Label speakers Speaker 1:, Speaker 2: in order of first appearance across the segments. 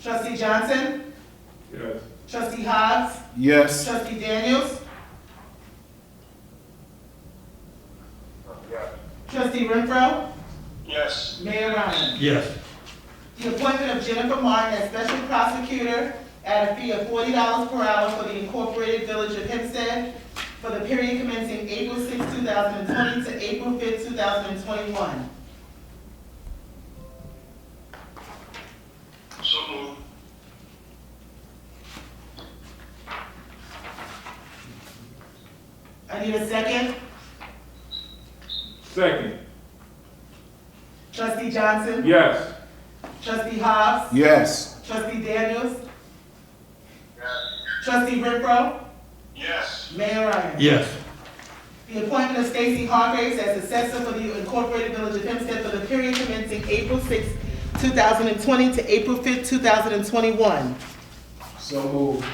Speaker 1: Trustee Johnson?
Speaker 2: Yes.
Speaker 1: Trustee Hogs?
Speaker 3: Yes.
Speaker 1: Trustee Daniels?
Speaker 2: Yes.
Speaker 1: Trustee Renfro?
Speaker 2: Yes.
Speaker 1: Mayor Ryan?
Speaker 4: Yes.
Speaker 1: The appointment of Jennifer Martin as special prosecutor at a fee of forty dollars per hour for the Incorporated Village of Hempstead for the period commencing April 6, thousand and twenty to April 5, thousand and twenty-one.
Speaker 2: So moved.
Speaker 1: I need a second.
Speaker 2: Second.
Speaker 1: Trustee Johnson?
Speaker 2: Yes.
Speaker 1: Trustee Hobbs?
Speaker 3: Yes.
Speaker 1: Trustee Daniels? Trustee Renfro?
Speaker 2: Yes.
Speaker 1: Mayor Ryan?
Speaker 4: Yes.
Speaker 1: The appointment of Stacy Hargraves as assessor for the Incorporated Village of Hempstead for the period commencing April 6, 2020 to April 5, 2021.
Speaker 3: So moved.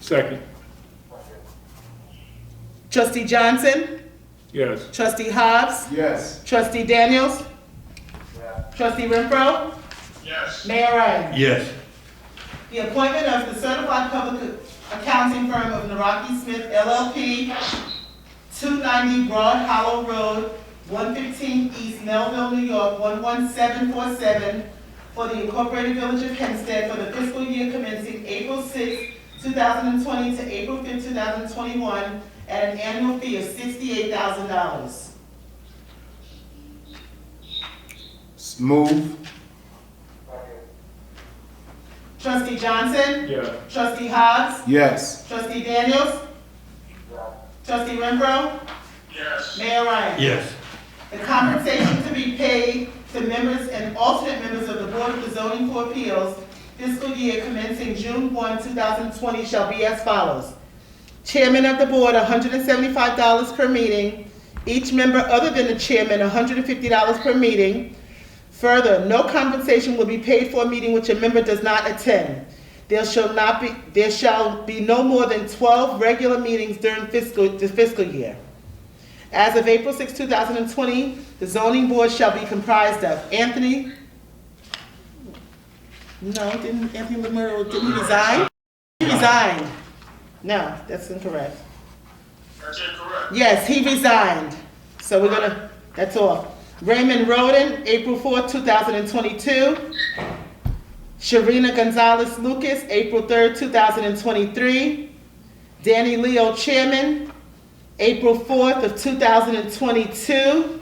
Speaker 2: Second.
Speaker 1: Trustee Johnson,
Speaker 2: Yes.
Speaker 1: trustee Hobbs,
Speaker 3: Yes.
Speaker 1: trustee Daniels, trustee Renfro,
Speaker 2: Yes.
Speaker 1: Mayor Ryan.
Speaker 4: Yes.
Speaker 1: The appointment of the certified public accounting firm of Naraki Smith LLP, 290 Broad Hollow Road, 115 East Melville, New York, 11747, for the Incorporated Village of Hempstead for the fiscal year commencing April 6, 2020 to April 5, 2021, at an annual fee of $68,000.
Speaker 3: S- Move.
Speaker 1: Trustee Johnson,
Speaker 2: Yes.
Speaker 1: trustee Hobbs,
Speaker 3: Yes.
Speaker 1: trustee Daniels, trustee Renfro,
Speaker 2: Yes.
Speaker 1: Mayor Ryan.
Speaker 4: Yes.
Speaker 1: The compensation to be paid to members and alternate members of the Board of the Zoning Board of Appeals fiscal year commencing June 1, 2020 shall be as follows. Chairman of the Board, $175 per meeting. Each member other than the chairman, $150 per meeting. Further, no compensation will be paid for a meeting which a member does not attend. There shall not be, there shall be no more than 12 regular meetings during fiscal, the fiscal year. As of April 6, 2020, the zoning board shall be comprised of Anthony, no, didn't Anthony Lemur, did he resign? He resigned. No, that's incorrect.
Speaker 2: That's incorrect.
Speaker 1: Yes, he resigned. So we're gonna, that's all. Raymond Roden, April 4, 2022. Sharina Gonzalez Lucas, April 3, 2023. Danny Leo Chairman, April 4th of 2022.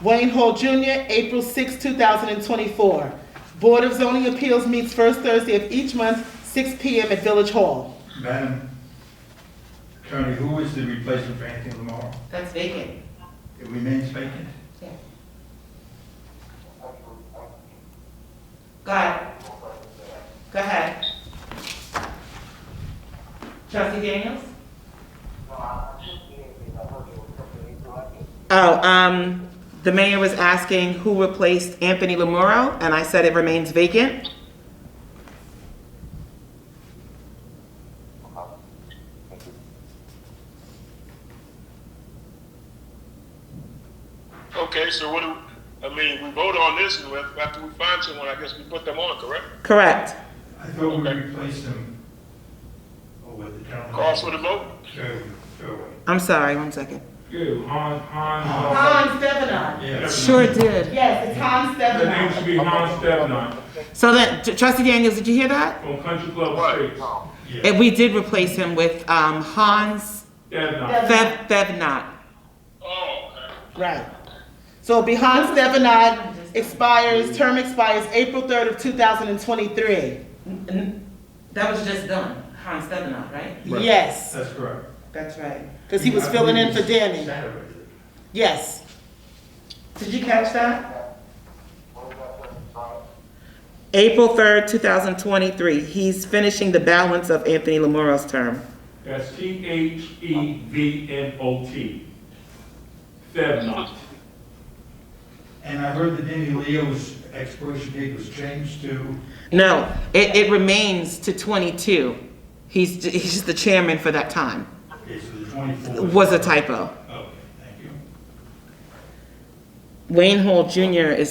Speaker 1: Wayne Hall Jr., April 6, 2024. Board of Zoning Appeals meets first Thursday of each month, 6 PM at Village Hall.
Speaker 4: Madam Attorney, who is the replacement for Anthony Lamar?
Speaker 1: That's vacant.
Speaker 4: It remains vacant?
Speaker 1: Go ahead. Go ahead. Trustee Daniels?
Speaker 5: Oh, um, the mayor was asking who replaced Anthony Lamuro, and I said it remains vacant.
Speaker 2: Okay, so what do, I mean, we vote on this, and after we find someone, I guess we put them on, correct?
Speaker 5: Correct.
Speaker 4: I thought we replaced him. Oh, with the town.
Speaker 2: Call for the vote?
Speaker 4: Sure, sure.
Speaker 5: I'm sorry, one second.
Speaker 2: Yeah, Han, Han. uh,
Speaker 1: Hans Stevenon.
Speaker 4: Yes.
Speaker 5: Sure did.
Speaker 1: Yes, it's Hans
Speaker 2: The name
Speaker 1: Stevenon.
Speaker 2: should be Han Stevenot
Speaker 5: So that, trustee Daniels, did you hear that?
Speaker 2: from Country Club Estates.
Speaker 5: Eh, We did replace him with, um, Hans
Speaker 2: Stevenot.
Speaker 5: Fev, Fevnot.
Speaker 2: Oh, okay.
Speaker 1: Right. So it'll be Hans Stevenon expires, term expires April 3rd of 2023.
Speaker 5: That was just done, Hans Fevnot, right?
Speaker 3: Right.
Speaker 1: Yes,
Speaker 4: That's correct.
Speaker 5: That's right.
Speaker 1: because he was filling in for Danny.
Speaker 4: Saturday.
Speaker 1: Yes.
Speaker 5: Did you catch that? April 3rd, 2023. He's finishing the balance of Anthony Lamuro's term.
Speaker 2: That's T H E V N O T. Thevenot.
Speaker 4: And I heard that Danny Leo's expiration date was changed to,
Speaker 5: No, it, it remains to 22. He's, he's just the chairman for that time.
Speaker 4: okay, so the 24th.
Speaker 5: Was a typo.
Speaker 4: Okay, thank you.
Speaker 5: Wayne Hall Jr. is